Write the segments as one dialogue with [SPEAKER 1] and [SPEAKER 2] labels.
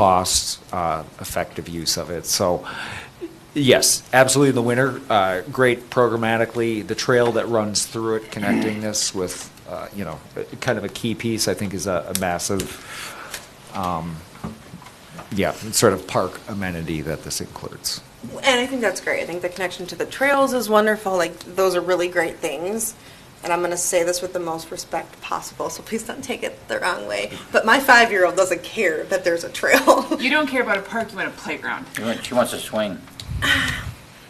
[SPEAKER 1] cost, uh, effective use of it. So, yes, absolutely in the winter, uh, great programmatically. The trail that runs through it, connecting this with, uh, you know, kind of a key piece, I think is a a massive, um, yeah, sort of park amenity that this includes.
[SPEAKER 2] And I think that's great. I think the connection to the trails is wonderful. Like, those are really great things. And I'm going to say this with the most respect possible, so please don't take it the wrong way. But my five year old doesn't care that there's a trail.
[SPEAKER 3] You don't care about a park, you want a playground.
[SPEAKER 4] She wants- She wants to swing.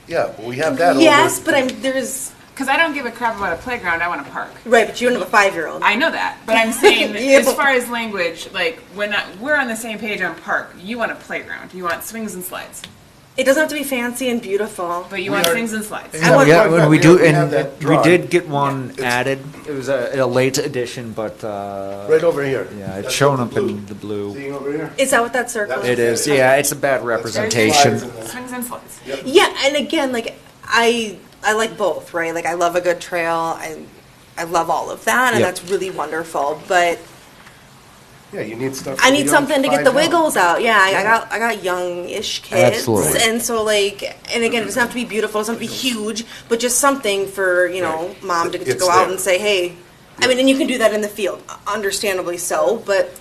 [SPEAKER 5] Yeah, but we have that over.
[SPEAKER 2] yes, but I'm there's
[SPEAKER 3] Because I don't give a crap about a playground, I want a park.
[SPEAKER 2] right, but you don't have a five year old.
[SPEAKER 3] I know that, but I'm saying
[SPEAKER 2] Yeah.
[SPEAKER 3] as far as language, like when I, we're on the same page on park, you want a playground, you want swings and slides,
[SPEAKER 2] It doesn't have to be fancy and beautiful.
[SPEAKER 3] but you
[SPEAKER 5] We
[SPEAKER 3] want
[SPEAKER 5] are-
[SPEAKER 3] swings and slides.
[SPEAKER 5] Yeah, we
[SPEAKER 1] Yeah,
[SPEAKER 5] have
[SPEAKER 1] when
[SPEAKER 5] that-
[SPEAKER 1] we
[SPEAKER 5] we
[SPEAKER 1] do,
[SPEAKER 5] have- we have
[SPEAKER 1] and
[SPEAKER 5] that
[SPEAKER 1] we
[SPEAKER 5] drawn.
[SPEAKER 1] did get one added, it was a, a late addition, but, uh.
[SPEAKER 5] Right over here.
[SPEAKER 1] Yeah, it's
[SPEAKER 5] That's
[SPEAKER 1] shown
[SPEAKER 5] the
[SPEAKER 1] up in the blue.
[SPEAKER 5] Seeing over here?
[SPEAKER 2] Is that what that circle
[SPEAKER 5] That's-
[SPEAKER 1] It is, yeah, it's a bad representation.
[SPEAKER 5] There's slides in there.
[SPEAKER 3] Swings and slides.
[SPEAKER 2] Yeah, and again, like I I like both, right? Like I love a good trail. I I love all of that, and
[SPEAKER 1] Yep.
[SPEAKER 2] that's really wonderful. But
[SPEAKER 5] Yeah, you need stuff.
[SPEAKER 2] I
[SPEAKER 5] that
[SPEAKER 2] need
[SPEAKER 5] you
[SPEAKER 2] something to
[SPEAKER 5] don't
[SPEAKER 2] get the
[SPEAKER 5] find out.
[SPEAKER 2] wiggles out. Yeah, I, I got I got young-ish kids,
[SPEAKER 1] Absolutely.
[SPEAKER 2] and so like, and again, it doesn't have to be beautiful, it doesn't have to be huge, but just something for you know,
[SPEAKER 5] Right.
[SPEAKER 2] mom to, to
[SPEAKER 5] It's
[SPEAKER 2] go out
[SPEAKER 5] there.
[SPEAKER 2] and say, hey, I mean, and you can do that in the field, understandably so, but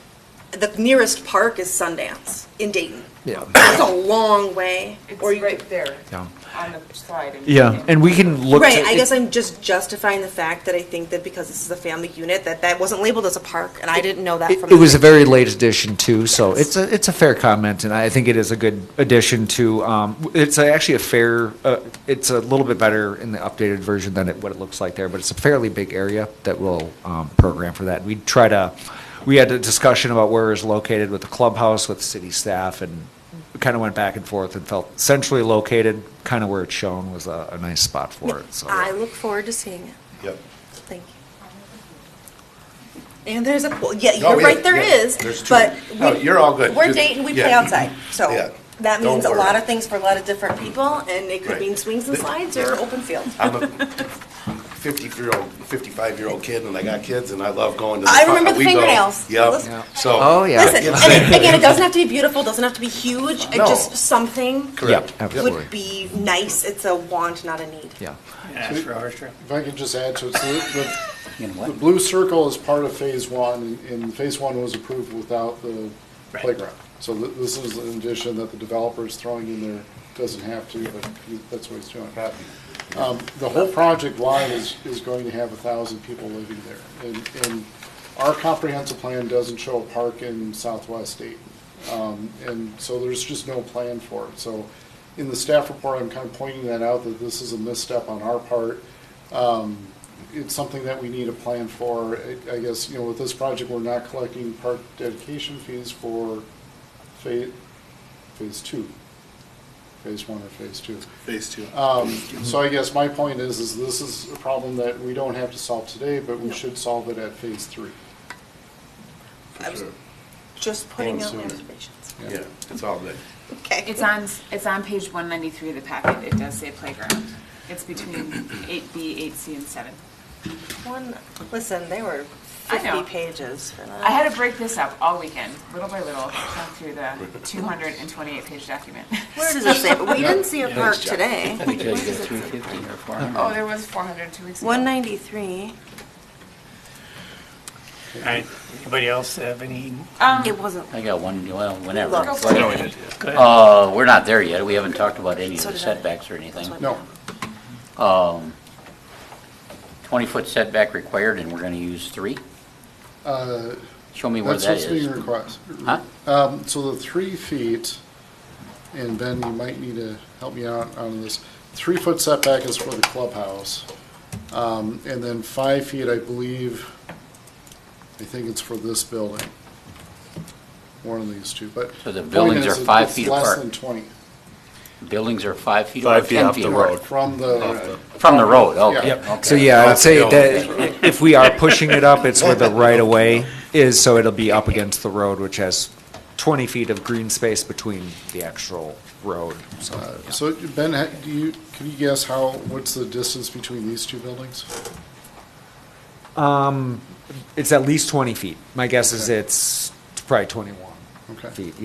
[SPEAKER 2] the nearest park is Sundance in Dayton.
[SPEAKER 1] Yeah.
[SPEAKER 2] That's a long way.
[SPEAKER 3] It's
[SPEAKER 2] Or you,
[SPEAKER 3] right there
[SPEAKER 1] Yeah.
[SPEAKER 3] on the slide.
[SPEAKER 1] Yeah, and we can look. to-
[SPEAKER 2] Right, I guess I'm just justifying the fact that I think that because this is a family unit, that that wasn't labeled as a park, and I didn't know that
[SPEAKER 1] It
[SPEAKER 2] from.
[SPEAKER 1] it
[SPEAKER 2] the
[SPEAKER 1] was a
[SPEAKER 2] get-
[SPEAKER 1] very late addition too, so it's a, it's a fair comment, and I think it is a good addition to, um, it's actually a fair, uh, it's a little bit better in the updated version than it, what it looks like there, but it's a fairly big area that we'll, um, program for that. We try to, we had a discussion about where it's located with the clubhouse, with city staff, and kind of went back and forth and felt centrally located, kind of where it's shown was a, a nice spot for it, so.
[SPEAKER 2] I look forward to seeing it.
[SPEAKER 5] Yep.
[SPEAKER 2] Thank you. And there's a pool. Yeah,
[SPEAKER 5] Oh,
[SPEAKER 2] you're
[SPEAKER 5] yeah,
[SPEAKER 2] right, there
[SPEAKER 5] yeah,
[SPEAKER 2] is.
[SPEAKER 5] there's two.
[SPEAKER 2] But
[SPEAKER 5] No,
[SPEAKER 2] we-
[SPEAKER 5] you're all good.
[SPEAKER 2] We're
[SPEAKER 5] You-
[SPEAKER 2] dating, we play
[SPEAKER 5] yeah.
[SPEAKER 2] outside.
[SPEAKER 5] Yeah.
[SPEAKER 2] So that
[SPEAKER 5] Don't
[SPEAKER 2] means a
[SPEAKER 5] worry.
[SPEAKER 2] lot of things for a lot of different people, and it could
[SPEAKER 5] Right.
[SPEAKER 2] mean swings and slides or open field.
[SPEAKER 5] I'm a fifty-year-old, fifty-five-year-old kid, and I got kids, and I love going to the.
[SPEAKER 2] I remember
[SPEAKER 5] park.
[SPEAKER 2] the
[SPEAKER 5] We go-
[SPEAKER 2] fingernails. Listen-
[SPEAKER 5] Yep, so.
[SPEAKER 1] Oh, yeah.
[SPEAKER 2] Listen, and it- again, it doesn't have to be beautiful, doesn't have to be huge, it
[SPEAKER 5] No.
[SPEAKER 2] just something
[SPEAKER 5] Correct.
[SPEAKER 1] Yeah, absolutely.
[SPEAKER 2] would be nice. It's a want, not a need.
[SPEAKER 1] Yeah.
[SPEAKER 4] Ask for a horse trip.
[SPEAKER 6] If I can just add to it, so the,
[SPEAKER 4] You know
[SPEAKER 6] the
[SPEAKER 4] what?
[SPEAKER 6] blue circle is part of phase one, and phase one was approved without the playground. So th- this is an addition that the developer is throwing in there, doesn't have to, but he- that's what he's doing.
[SPEAKER 5] Happy.
[SPEAKER 6] Um, the whole project line is, is going to have a thousand people living there. And, and our comprehensive plan doesn't show a park in southwest Dayton. Um, and so there's just no plan for it. So in the staff report, I'm kind of pointing that out, that this is a misstep on our part. Um, it's something that we need a plan for. I- I guess, you know, with this project, we're not collecting park dedication fees for phase, phase two. Phase one or phase two.
[SPEAKER 5] Phase two.
[SPEAKER 6] Um, So I guess my point is, is this is a problem that we don't have to solve today, but we should solve it at phase three.
[SPEAKER 2] I was just putting out
[SPEAKER 6] sooner.
[SPEAKER 2] reservations.
[SPEAKER 5] Yeah, it's all good.
[SPEAKER 2] Okay.
[SPEAKER 3] It's on, it's on page one ninety-three of the packet, it does say playground. It's between eight B, eight C, and seven.
[SPEAKER 2] One, listen, they were
[SPEAKER 3] I know.
[SPEAKER 2] 50 pages for that.
[SPEAKER 3] I had to break this up all weekend, little by little, through the two hundred and twenty-eight page document.
[SPEAKER 2] Where does it say? We didn't see a park today.
[SPEAKER 4] Because you got three fifty or four
[SPEAKER 3] Oh,
[SPEAKER 4] hundred.
[SPEAKER 3] there was four hundred two weeks ago.
[SPEAKER 2] 193.
[SPEAKER 7] All right, anybody else have any?
[SPEAKER 2] It wasn't.
[SPEAKER 4] I got one, well,
[SPEAKER 2] Look.
[SPEAKER 4] whenever.
[SPEAKER 3] Go for it.
[SPEAKER 7] Go ahead.
[SPEAKER 4] Uh, we're not there yet. We haven't talked about any of
[SPEAKER 2] So
[SPEAKER 4] the
[SPEAKER 2] did I.
[SPEAKER 4] setbacks or anything.
[SPEAKER 2] That's
[SPEAKER 6] No,
[SPEAKER 4] Twenty-foot setback required, and we're gonna use three?
[SPEAKER 6] uh,
[SPEAKER 4] Show me where
[SPEAKER 6] that's
[SPEAKER 4] that
[SPEAKER 6] what's being
[SPEAKER 4] is.
[SPEAKER 6] requested.
[SPEAKER 4] Huh?
[SPEAKER 6] Um, so the three feet, and Ben, you might need to help me out on this. Three foot setback is for the clubhouse. Um, and then five feet, I believe, I think it's for this building. One of these two, but.
[SPEAKER 4] So the
[SPEAKER 6] point
[SPEAKER 4] buildings
[SPEAKER 6] is
[SPEAKER 4] are five
[SPEAKER 6] it's
[SPEAKER 4] feet
[SPEAKER 6] Less
[SPEAKER 4] apart.
[SPEAKER 6] than twenty.
[SPEAKER 4] Buildings are five feet or
[SPEAKER 7] Five feet
[SPEAKER 4] ten
[SPEAKER 7] off
[SPEAKER 4] feet
[SPEAKER 7] the
[SPEAKER 4] apart?
[SPEAKER 6] From the,
[SPEAKER 4] From the road, okay.
[SPEAKER 6] Yep.
[SPEAKER 4] okay.
[SPEAKER 1] So yeah, I'd say that if we are pushing it up, it's where the right of way is, so it'll be up against the road, which has twenty feet of green space between the actual road, so.
[SPEAKER 6] so Ben, ha- do you, can you guess how, what's the distance between these two buildings?
[SPEAKER 1] It's at least twenty feet. My guess is it's probably twenty-one
[SPEAKER 6] Okay.
[SPEAKER 1] feet,